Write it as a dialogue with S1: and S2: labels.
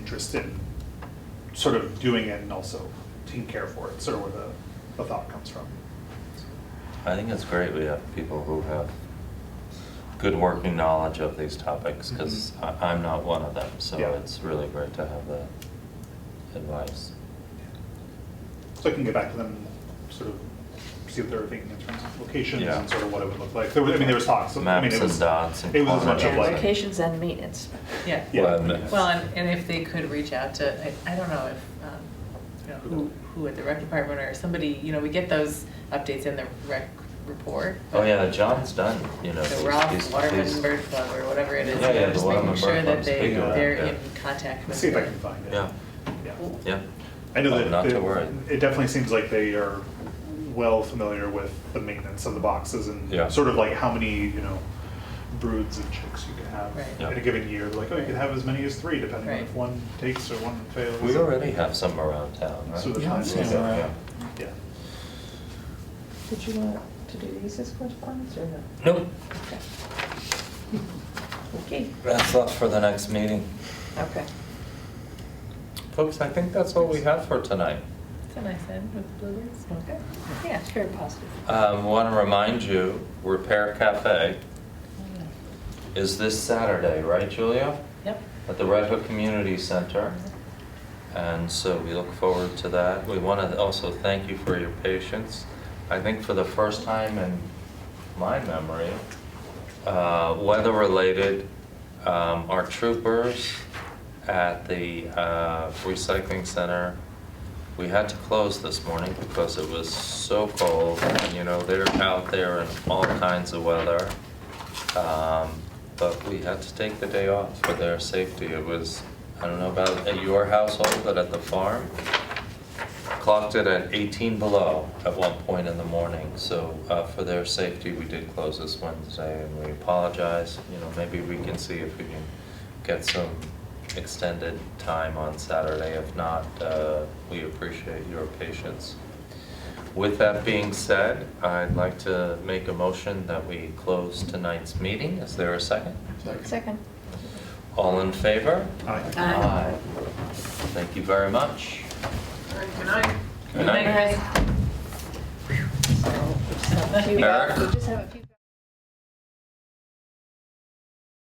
S1: interest in sort of doing it and also taking care for it, sort of where the, the thought comes from.
S2: I think it's great we have people who have good working knowledge of these topics, because I'm not one of them, so
S1: Mm-hmm. Yeah.
S2: it's really great to have that advice.
S1: So I can get back to them, sort of see what they're thinking in terms of locations
S2: Yeah.
S1: and sort of what it would look like. There was, I mean, there was talks, I mean,
S2: Maps
S1: it
S2: and
S1: was,
S2: dots and
S1: it was as much of
S2: corners.
S1: like.
S3: Locations and maintenance.
S4: Yeah.
S1: Yeah.
S4: Well, and, and if they could reach out to, I, I don't know if, um, you know, who, who at the rec department or somebody, you know, we get those updates in the rec report.
S2: Oh, yeah, John's done, you know.
S4: The
S2: he's-
S4: Ralph
S2: he's-
S4: Waterman
S2: he's-
S4: Bird Club or whatever it is.
S2: Yeah,
S4: you know,
S2: yeah, the
S4: just
S2: Waterman
S4: making sure
S2: Bird
S4: that
S2: Club's
S4: they,
S2: big one,
S4: they're
S2: yeah.
S4: in contact
S1: Let's
S4: with.
S1: see if I
S4: the-
S1: can find it.
S2: Yeah.
S1: Yeah.
S2: Yeah,
S1: I know
S2: Oh,
S1: that.
S2: not to
S1: that-
S2: worry.
S1: It definitely seems like they are well familiar with the maintenance of the boxes and
S2: Yeah.
S1: sort of like how many, you know, broods of chicks you can have
S4: Right.
S2: Yeah.
S1: in a given year. Like, oh, you can have as many as three, depending on
S4: Right.
S1: if one takes or one fails.
S2: we already have some around town, right?
S1: So the
S5: Yeah,
S1: time
S5: I'm
S1: is
S5: seeing
S1: up,
S5: around.
S1: yeah. Yeah.
S3: Did you want to do these as correspondence or no?
S2: Nope,
S3: Okay. Okay,
S2: that's up for the next meeting.
S3: okay.
S2: Folks, I think that's all we have for tonight.
S4: It's a nice end with blueberries. Okay.
S3: Yeah, it's very positive.
S2: Um, want to remind you, Repair Cafe is this Saturday, right, Julia?
S4: Yep.
S2: At the Red Hook Community Center. And so we look forward to that. We want to also thank you for your patience. I think for the first time in my memory, uh, weather-related, um, our troopers at the uh, recycling center, we had to close this morning because it was so cold. And, you know, they're out there in all kinds of weather. Um, But we had to take the day off for their safety. It was, I don't know about at your household, but at the farm, clocked it at 18 below at one point in the morning. So uh, for their safety, we did close this Wednesday and we apologize. You know, maybe we can see if we can get some extended time on Saturday. If not, uh, we appreciate your patience. With that being said, I'd like to make a motion that we close tonight's meeting. Is there a second?
S3: Second.
S2: All in favor?
S1: Aye.
S3: Aye.
S2: Thank you very much.
S4: All right, good night.
S2: Good night.
S3: So, so a few-
S2: Eric?
S3: We just have a few.